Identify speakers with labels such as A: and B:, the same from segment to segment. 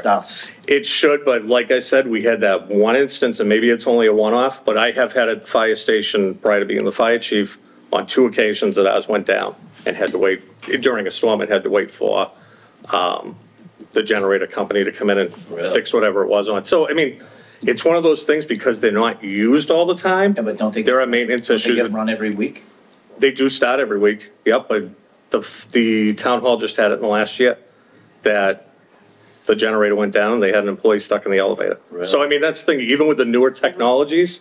A: stuff.
B: It should, but like I said, we had that one instance, and maybe it's only a one-off, but I have had a fire station, prior to being the fire chief, on two occasions that ours went down and had to wait, during a storm, it had to wait for, um, the generator company to come in and fix whatever it was on. So, I mean, it's one of those things because they're not used all the time.
A: Yeah, but don't they-
B: There are maintenance
A: They
B: issues.
A: get run every week?
B: They do start every week, yep, but the, the town hall just had it in the last year, that the generator went down, and they had an employee stuck in the elevator. So I mean, that's the thing, even with the newer technologies,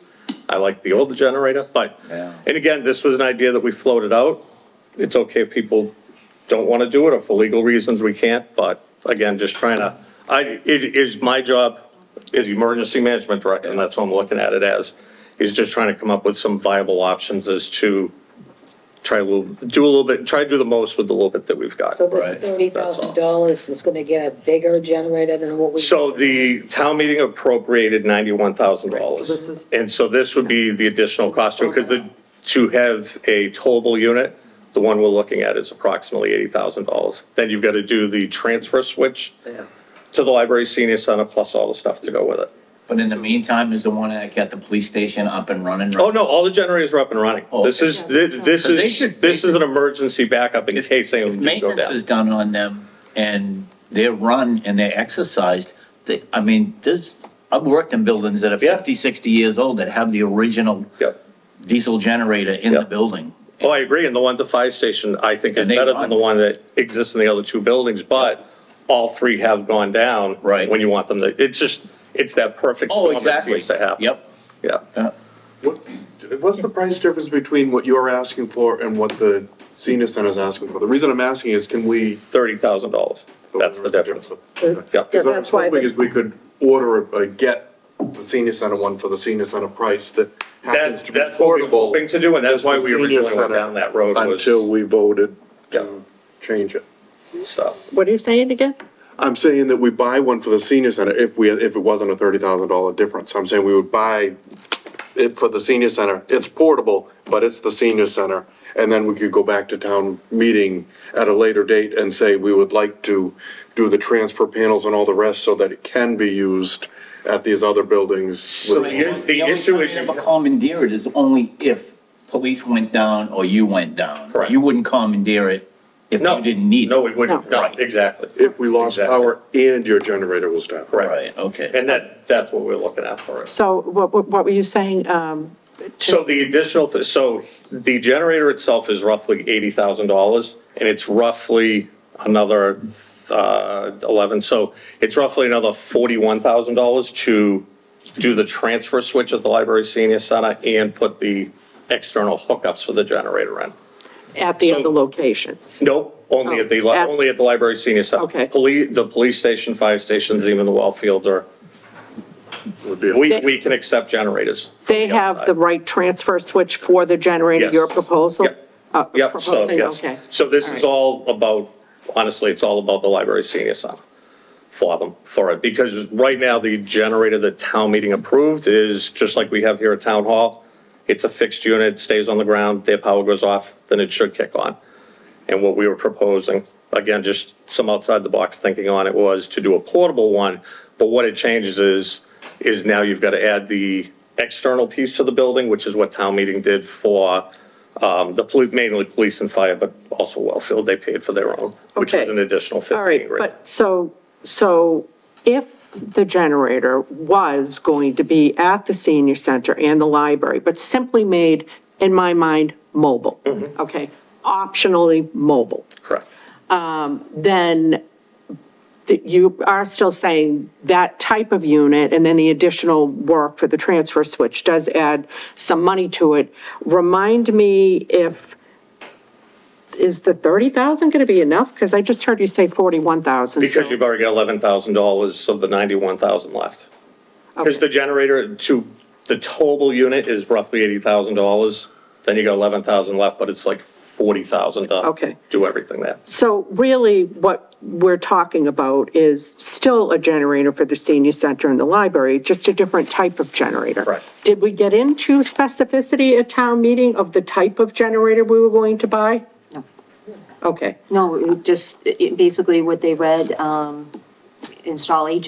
B: I like the older generator, but,
A: Yeah.
B: and again, this was an idea that we floated out. It's okay if people don't want to do it, or for legal reasons we can't, but again, just trying to, I, it is my job, is emergency management director, and that's what I'm looking at it as, is just trying to come up with some viable options as to try a little, do a little bit, try to do the most with the little bit that we've got.
C: So this
A: Right.
C: thirty thousand dollars is gonna get a bigger generator than what we.
B: So the town meeting appropriated ninety-one thousand dollars.
C: Right, so this is-
B: And so this would be the additional cost to, because the, to have a towable unit, the one we're looking at is approximately eighty thousand dollars. Then you've got to do the transfer switch
C: Yeah.
B: to the library senior center, plus all the stuff to go with it.
A: But in the meantime, is the one that got the police station up and running? right?
B: Oh, no, all the generators are up and running.
A: Oh,
B: This
A: okay.
B: is, thi- this
A: So they
B: is,
A: should- they
B: this is an emergency backup in case they do go
A: Maintenance is
B: down.
A: done on them and they're run and they're exercised. They, I mean, there's, I've worked in buildings that are
B: Yeah.
A: 50, 60 years old that have the original
B: Yep.
A: diesel generator in the
B: Yep.
A: building.
B: Oh, I agree, and the one at the fire station, I think is
A: And they
B: better
A: run.
B: than the one that exists in the other two buildings, but all three have gone down.
A: Right.
B: When you want them to, it's just, it's that perfect
A: Oh,
B: storm that
A: exactly.
B: seems to happen.
A: Yep.
B: Yeah.
A: Uh,
D: What, what's the price difference between what you're asking for and what the senior center is asking for? The reason I'm asking is can we?
B: Thirty thousand dollars, that's the difference. Yeah.
D: Because what I'm
C: that's why
D: hoping
C: the-
D: is we could order, a- a get the senior center one for the senior center price that happens
B: That's,
D: to be
B: that's what we're
D: affordable
B: hoping to do, and that's why we
D: Senior
B: originally went
D: Center
B: down that road
D: Until
B: was
D: we voted
B: Yeah.
D: to change it.
B: stuff.
E: What are you saying again?
D: I'm saying that we buy one for the senior center if we, if it wasn't a thirty thousand dollar difference. I'm saying we would buy it for the senior center. It's portable, but it's the senior center. And then we could go back to town meeting at a later date and say we would like to do the transfer panels and all the rest so that it can be used at these other buildings.
B: So
D: with-
B: you- the
A: only
B: issue
A: time
B: is
A: you
B: you-
A: ever commandeer it is only if police went down or you went down.
B: Correct.
A: You wouldn't commandeer it if
B: No.
A: you didn't need it.
B: No, we wouldn't,
A: No.
B: no, exactly.
D: If we lost
B: Exactly.
D: power and your generator was down.
A: Right, okay.
B: And that, that's what we're looking at for us.
E: So what, what what were you saying? Um,
B: So the additional, th- so the generator itself is roughly eighty thousand dollars, and it's roughly another, uh, eleven, so it's roughly another forty-one thousand dollars to do the transfer switch at the library senior center and put the external hookups for the generator in.
E: at the
B: So-
E: other locations?
B: Nope, only at the, li-
E: Oh, at-
B: only at the library senior center.
E: Okay.
B: Police, the police station, fire stations, even the well fields are,
D: Would be a-
B: we, we can accept generators. from
E: They have
B: outside.
E: the right transfer switch for the generator,
B: Yes.
E: your proposal?
B: Yep.
E: Uh,
B: Yep, so,
E: proposing,
B: yes.
E: okay.
B: So this is
E: right.
B: all about, honestly, it's all about the library senior center for them, for it. Because right now, the generator that town meeting approved is, just like we have here at town hall, it's a fixed unit, stays on the ground, their power goes off, then it should kick on. And what we were proposing, again, just some outside the box thinking on it, was to do a portable one. But what it changes is, is now you've got to add the external piece to the building, which is what town meeting did for um, the poli- mainly police and fire, but also Wellfield, they paid for their own, which was
E: Okay.
B: an additional fifteen
E: All right,
B: grand.
E: but so, so if the generator was going to be at the senior center and the library, but simply made, in my mind, mobile,
B: Mm-hmm.
E: okay, optionally mobile,
B: Correct.
E: then that you are still saying that type of unit and then the additional work for the transfer switch does add some money to it. Remind me if, is the 30,000 going to be enough? Because I just heard you say 41,000.
B: Because you've already got eleven thousand dollars of the ninety-one thousand left. Because the generator to, the towable unit is roughly eighty thousand dollars, then you got eleven thousand left, but it's like forty thousand to
E: Okay.
B: do everything there.
E: So really, what we're talking about is still a generator for the senior center and the library, just a different type of generator.
B: Correct.
E: Did we get into specificity at town meeting of the type of generator we were going to buy? No. Okay.
F: No, it just, it- basically what they read, um, install agent